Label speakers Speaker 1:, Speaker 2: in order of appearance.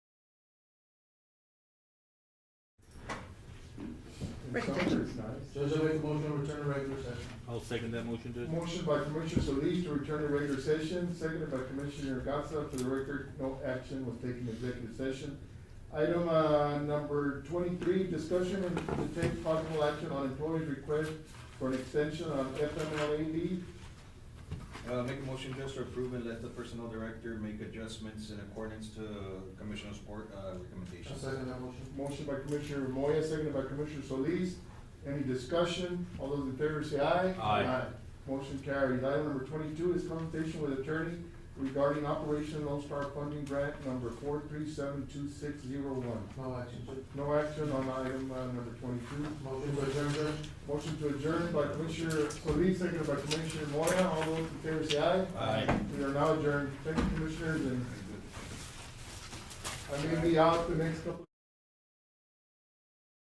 Speaker 1: Right.
Speaker 2: Summer is nice.
Speaker 3: Judge, I make a motion to return to regular session.
Speaker 4: I'll second that motion, Judge.
Speaker 2: Motion by Commissioner Solis to return to regular session, seconded by Commissioner Gatsa. For the record, no action was taken in executive session. Item, uh, number twenty-three, discussion and to take possible action on employee's request for an extension on FMLA leave.
Speaker 5: Uh, make a motion just to approve and let the personnel director make adjustments in accordance to commissioner's board, uh,
Speaker 3: I
Speaker 5: recommendations.
Speaker 3: second that motion.
Speaker 2: Motion by Commissioner Moya, seconded by Commissioner Solis. Any discussion? All those in favor say aye.
Speaker 4: Aye.
Speaker 2: Motion carries. Item number twenty-two is consultation with attorney regarding Operation Lone Star Funding Grant number four three seven two six zero one.
Speaker 3: No action, Judge.
Speaker 2: No action on item uh, number twenty-two.
Speaker 3: Motion to adjourn, Judge.
Speaker 2: Motion to adjourn by Commissioner Solis, seconded by Commissioner Moya. All those in favor say aye.
Speaker 5: Aye.
Speaker 2: We are now adjourned. Thank you, commissioners, and I may be out the next couple.